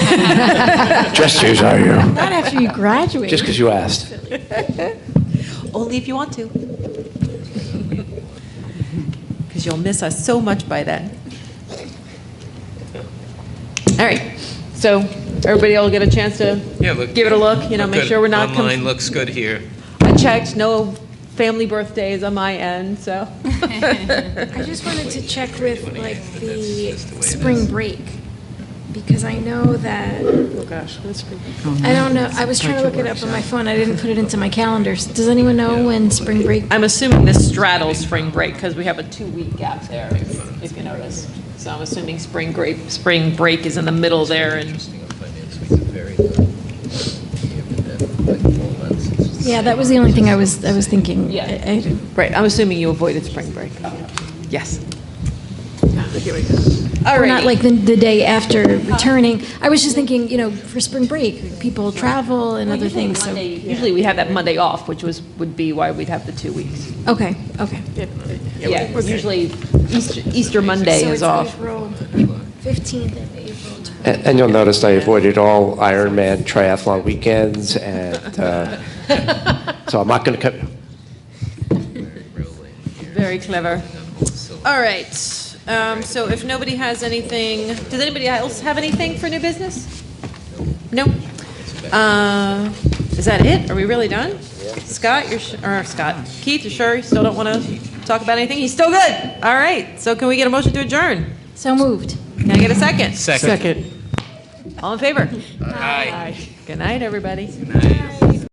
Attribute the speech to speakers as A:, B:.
A: Just as are you.
B: Not after you graduate.
A: Just because you asked.
C: Only if you want to. Because you'll miss us so much by then.
D: All right, so everybody will get a chance to
E: Yeah, look.
D: give it a look, you know, make
E: good.
D: sure we're not. conf-
E: Online looks good here.
D: I checked, no family birthdays on my end, so.
B: I just wanted to check with like the spring break, because I know that,
D: Oh, gosh, that's pretty.
B: I don't know, I was trying to look it up on my phone, I didn't put it into my calendar. Does anyone know when spring break?
D: I'm assuming this straddles spring break because we have a two-week gap there, if if you notice. So I'm assuming spring break, spring break is in the middle there and,
B: Yeah, that was the only thing I was, I was thinking.
D: Yeah.
B: I- I-
D: right, I'm assuming you avoided spring break. Yes. All
B: Or not
D: right.
B: like the, the day after returning. I was just thinking, you know, for spring break, people travel and other things, so.
D: Usually we have that Monday off, which was, would be why we'd have the two weeks.
B: Okay, okay.
D: Yeah, usually Easter, Easter Monday is off.
B: April 15th and April 20th.
A: And and you'll notice I avoided all Ironman triathlon weekends, and uh, so I'm not going to come,
D: Very clever. All right, um, so if nobody has anything, does anybody else have anything for new business? No? Uh, Is that it? Are we really done? Scott, you're, su- or Scott, Keith, you're sure you still don't want to talk about anything? He's still good. All right, so can we get a motion to adjourn?
B: So moved.
D: Can I get a second?
E: Second.
D: All in favor? Aye. Good night, everybody.
E: Nice.